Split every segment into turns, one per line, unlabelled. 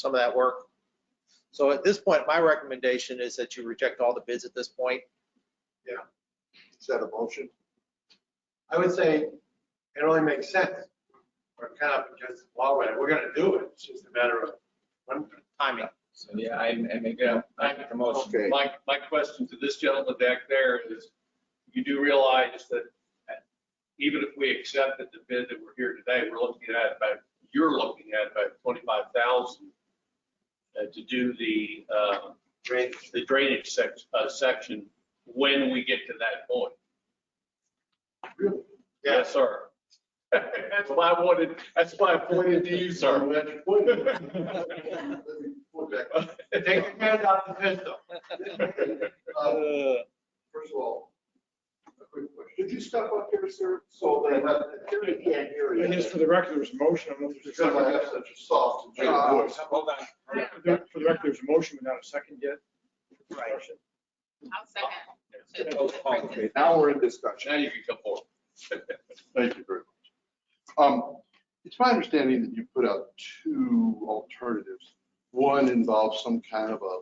some of that work. So at this point, my recommendation is that you reject all the bids at this point.
Is that a motion?
I would say it only makes sense. We're kind of against the wall, we're gonna do it, it's just a matter of when.
Timing.
So, yeah, I, I make a, I make a motion.
Okay,
My, my question to this gentleman back there is, you do realize that even if we accepted the bid that we're here today, we're looking at about, you're looking at about twenty-five thousand uh, to do the, uh,
Drainage.
the drainage section, uh, section when we get to that point.
Yeah.
Yes, sir. That's why I wanted, that's why I pointed to you,
Sorry,
sir.
we had to put it.
Put back.
Take your hand out of the pistol.
Uh, First of all, a quick question. Could you step up here, sir, so that the jury can't hear you?
And just for the record, there was a motion. I don't know if there's
Because I have such a soft and
Uh,
gentle voice.
Hold on.
For the for the record, there's a motion, but not a second yet.
Right.
I'll second.
Okay, now we're in discussion.
Now you can come forward.
Thank you very much. Um, It's my understanding that you put out two alternatives. One involves some kind of a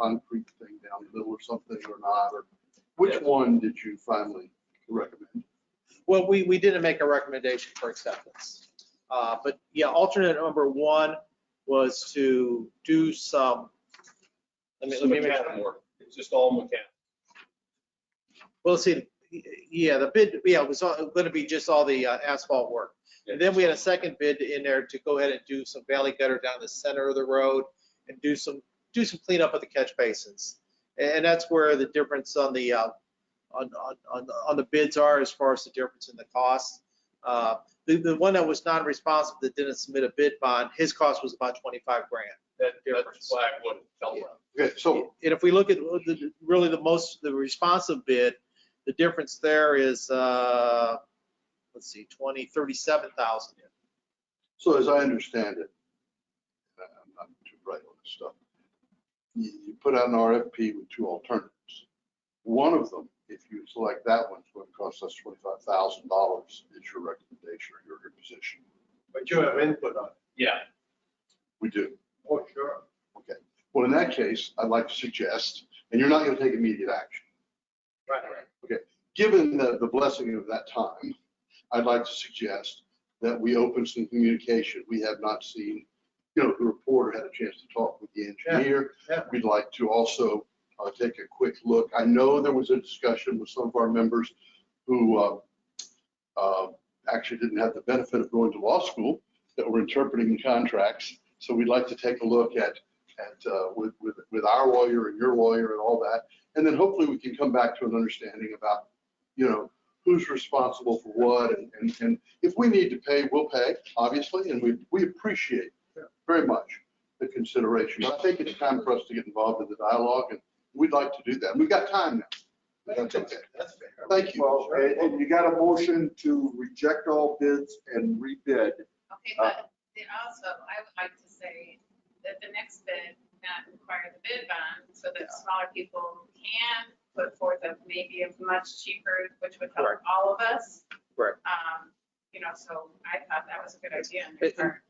concrete thing down the middle or something or not, or which
Yes.
one did you finally recommend?
Well, we, we didn't make a recommendation for acceptance. Uh, But yeah, alternate number one was to do some, let me, let me make
Mechanical work. It's just all mechanical.
Well, see, yeah, the bid, yeah, it was all- gonna be just all the uh, asphalt work. And then we had a second bid in there to go ahead and do some valley gutter down the center of the road and do some, do some cleanup of the catch basins. And that's where the difference on the, uh, on, on, on the- on the bids are as far as the difference in the cost. Uh, The, the one that was non-responsive that didn't submit a bid bond, his cost was about 25 grand.
That,
Difference.
that's why I wouldn't tell them.
Okay, so
And if we look at the- really the most, the responsive bid, the difference there is, uh, let's see, 20, 37,000.
So as I understand it, and I'm not too bright on this stuff, you, you put out an RFP with two alternatives. One of them, if you select that one, it's going to cost us twenty-five thousand dollars, is your recommendation or your your position.
But you have input on it.
Yeah,
We do.
Oh, sure.
Okay. Well, in that case, I'd like to suggest, and you're not going to take immediate action.
Right.
Given the, the blessing of that time, I'd like to suggest that we open some communication. We have not seen, you know, the reporter had a chance to talk with the engineer.
Yeah.
We'd like to also uh, take a quick look. I know there was a discussion with some of our members who uh, uh, actually didn't have the benefit of going to law school, that were interpreting contracts. So we'd like to take a look at, at, uh, with, with with our lawyer and your lawyer and all that. And then hopefully we can come back to an understanding about, you know, who's responsible for what. and- And, and if we need to pay, we'll pay, obviously, and we, we appreciate very much the consideration. But I think it's time for us to get involved in the dialogue, and we'd like to do that. We've got time now. That's okay.
That's fair.
Thank you.
Well, and, and you got a motion to reject all bids and rebid.
Okay,
Uh,
but then also, I would like to say that the next bid not require the bid bond, so that smaller people can put forth a maybe a much cheaper, which would help
Correct.
all of us.
Correct.
Um, you know, so I thought that was a good idea on their
It-
part.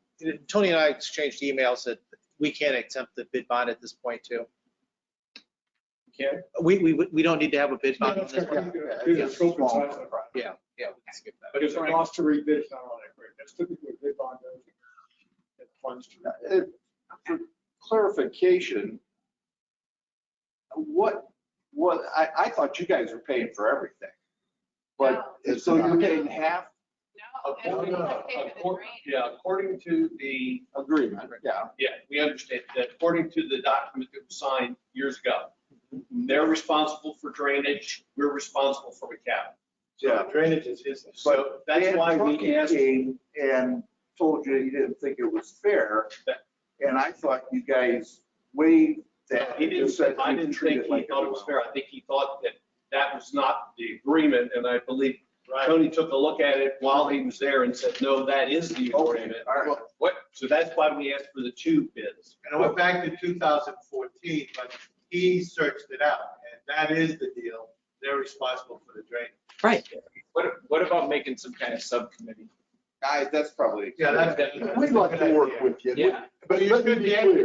Tony and I exchanged emails that we can't exempt the bid bond at this point too.
Can't?
We, we, we don't need to have a bid bond. on this one.
Do the scope and size of the project.
Yeah, yeah. we can skip that.
But if it costs to rebid, it's not all that great. That's typically what bid bond does. It funds to.
Uh, For clarification, what, what, I, I thought you guys were paying for everything. But,
It's
so you're
not-
getting half
No, if we
According-
don't pay for the
according-
drain,
Yeah, according to the,
agreement, yeah.
yeah, we understand that according to the document that was signed years ago, they're responsible for drainage, we're responsible for the cap.
So drainage is his.
So that's why we
And
asked,
trucking came And told you you didn't think it was fair, and I thought you guys waived that.
he
and just
didn't,
said
I
you
didn't
treat
think he
like
thought it was
everyone
fair. I think he thought that that was not the agreement, and I believe
Right.
Tony took a look at it while he was there and said, no, that is the
else. Okay,
agreement.
all right.
What, so that's why we asked for the two bids.
And I went back to 2014, but he searched it out, and that is the deal. They're responsible for the drainage.
What, what about making some kind of subcommittee?
guys, that's probably.
Yeah, that's.
We'd like to work with you.
Yeah.
But let me be clear.